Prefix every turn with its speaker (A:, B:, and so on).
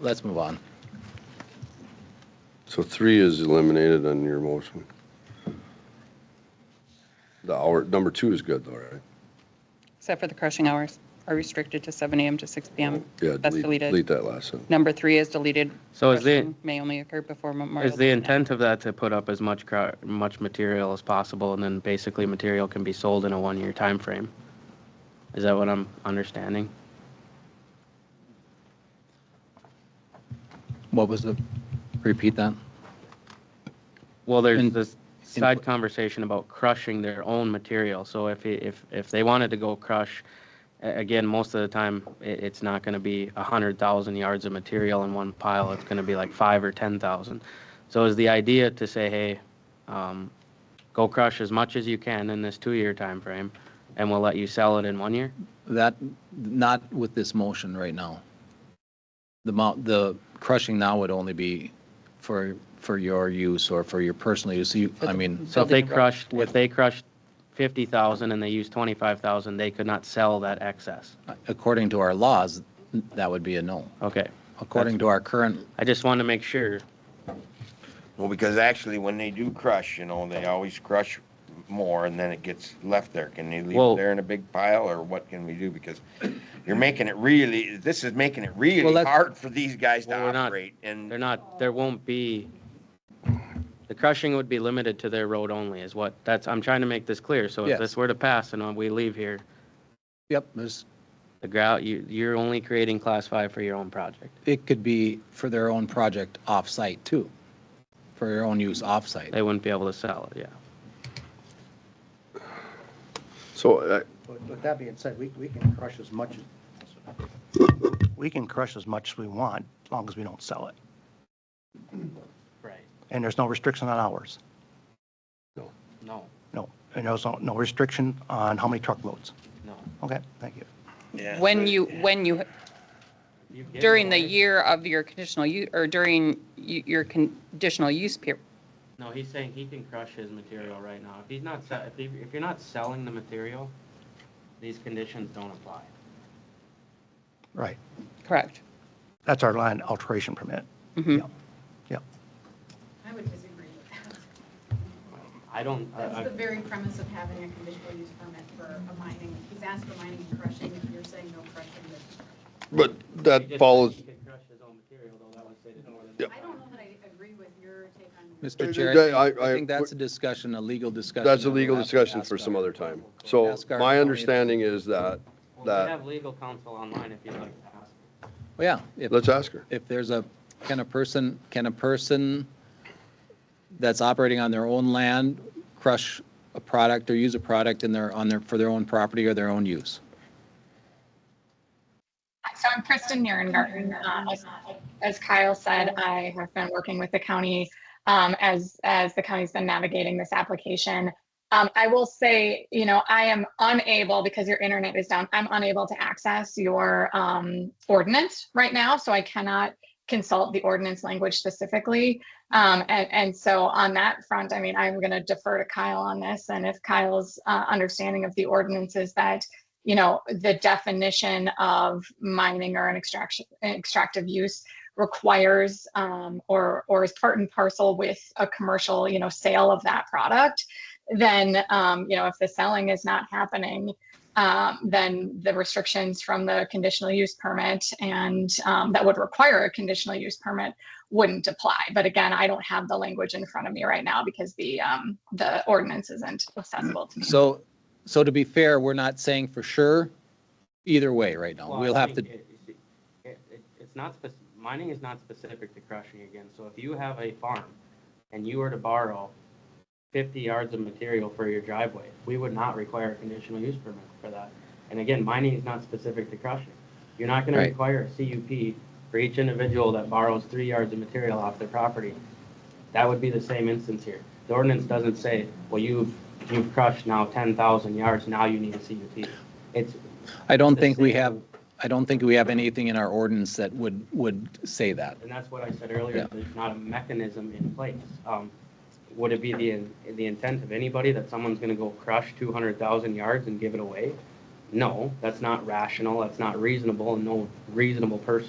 A: let's move on.
B: So three is eliminated on your motion. The hour, number two is good though, right?
C: Except for the crushing hours are restricted to 7 AM to 6 PM.
B: Oh, Yeah,
C: That's
B: delete, delete
C: deleted.
B: that last sentence.
C: Number three is deleted.
D: So is the,
C: Crushing May only occur before Memorial.
D: is the
C: Day.
D: intent of that to put up as much, cro- much material as possible and then basically material can be sold in a one-year time frame? Is that what I'm understanding?
A: What was the, repeat that?
D: Well, there's
A: In-
D: this
A: in-
D: side conversation about crushing their own material. So if, it- if, if they wanted to go crush, a- again, most of the time, it, it's not gonna be a hundred thousand yards of material in one pile. It's gonna be like five or ten thousand. So is the idea to say, hey, um, go crush as much as you can in this two-year time frame, and we'll let you sell it in one year?
A: That, not with this motion right now. The mount, the crushing now would only be for, for your use or for your personal use. You, I mean,
D: So if they
C: Building a road.
D: crushed, if they crushed fifty thousand and they used twenty-five thousand, they could not sell that excess.
A: Uh, according to our laws, that would be a no.
D: Okay.
A: According to our current,
D: I just wanted to make sure.
E: Well, because actually, when they do crush, you know, they always crush more and then it gets left there. Can they leave
D: Well-
E: it there in a big pile or what can we do? Because you're making it really, this is making it
A: Well,
E: really
A: that's-
E: hard for these guys to
D: Well, we're not-
E: operate and.
D: They're not, there won't be, the crushing would be limited to their road only is what, that's, I'm trying to make this clear. So if
A: Yes.
D: this were to pass and we leave here,
A: yep, there's
D: the grout, you, you're only creating class five for your own project.
A: it could be for their own project off-site too, for your own use off-site.
D: They wouldn't be able to sell it, yeah.
B: So, uh,
F: With with that being said, we, we can crush as much as, we can crush as much as we want, as long as we don't sell it.
D: Right,
F: And there's no restriction on hours,
D: no,
F: no. And there's no, no restriction on how many truckloads.
D: no.
F: Okay, thank you.
E: Yeah,
C: When
E: but-
C: you, when you, during the year of your conditional, u- or during y- your conditional use period,
D: No, he's saying he can crush his material right now. If he's not, se- if, he- if you're not selling the material, these conditions don't apply.
F: Right.
C: correct?
F: That's our land alteration permit.
C: Mhm.
F: Yeah. Yeah.
G: I would disagree.
D: I don't, I-
G: That's
D: I-
G: the very premise of having a conditional use permit for a mining. He's asked for mining and crushing, if you're saying no crushing,
B: but
G: but
D: he
B: that
D: just-
B: follows,
D: He can crush his own material, though that would say that no one-
B: Yep.
G: I don't know that I agree with your take on.
A: Mr.
B: Okay,
A: Chair, I
B: I-
A: think- I
B: I-
A: think that's a discussion, a legal discussion.
B: that's a
A: that we'll
B: legal
A: have to
B: discussion
A: ask
B: for some
A: our-
B: other time. So
A: Ask our
B: my
A: attorney.
B: understanding is that,
D: Well,
B: that,
D: we have legal counsel online if you'd like to ask.
A: Yeah, if,
B: let's ask her.
A: if there's a, can a person, can a person that's operating on their own land crush a product or use a product in their, on their, for their own property or their own use?
G: So I'm Kristen Nierengarten. Um, as- As Kyle said, I have been working with the county um, as, as the county's been navigating this application. Um, I will say, you know, I am unable, because your internet is down, I'm unable to access your um, ordinance right now, so I cannot consult the ordinance language specifically. Um, And, and so on that front, I mean, I'm going to defer to Kyle on this, and if Kyle's uh, understanding of the ordinance is that you know, the definition of mining or an extraction, an extractive use requires um, or or is part and parcel with a commercial, you know, sale of that product, then um, you know, if the selling is not happening, um, then the restrictions from the conditional use permit and um, that would require a conditional use permit wouldn't apply. But again, I don't have the language in front of me right now because the um, the ordinance isn't accessible to me.
A: So, so to be fair, we're not saying for sure either way right now.
D: Well,
A: We'll
D: I
A: have to,
D: think it- it- it- it- It's not, spec- mining is not specific to crushing again, so if you have a farm and you were to borrow fifty yards of material for your driveway, we would not require a conditional use permit for that. And again, mining is not specific to crushing. You're not gonna
A: Right.
D: require a CUP for each individual that borrows three yards of material off their property. That would be the same instance here. The ordinance doesn't say, well, you've, you've crushed now ten thousand yards, now you need a CUP. It's,
A: I don't think we have, I don't think we have anything in our ordinance that would, would say that.
D: And that's what I said
A: Yeah.
D: earlier, there's not a mechanism in place. Um, Would it be the, the intent of anybody that someone's gonna go crush two hundred thousand yards and give it away? No, that's not rational, that's not reasonable, and no reasonable person